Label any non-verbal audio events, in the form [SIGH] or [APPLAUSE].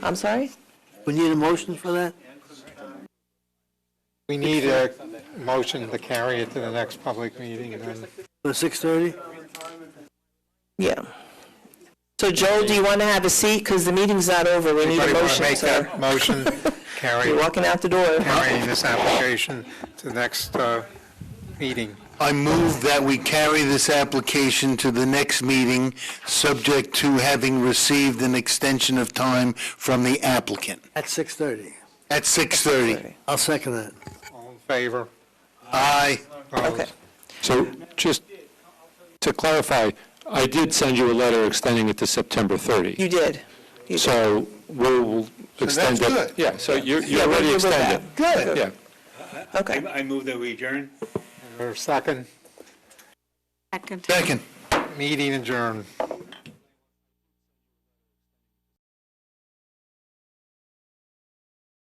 I'm sorry? We need a motion for that? We need a motion to carry it to the next public meeting, then. For 6:30? Yeah. So Joel, do you want to have a seat? Because the meeting's not over. We need a Anybody want to motion, make sir. that motion, carry, You're walking out the door. [LAUGHS] carry this application to the next uh, meeting? I move that we carry this application to the next meeting, subject to having received an extension of time from the applicant. At 6:30? At 6:30. I'll second that. All in favor? Aye. Opposed? Okay. So just to clarify, I did send you a letter extending it to September 30. You did. You did. So we'll extend it. good. Yeah, so you're you're Yeah, we're already good with extended. that. Good. Yeah. Okay. I move that we adjourn. Is there a second? Second. Meeting adjourned.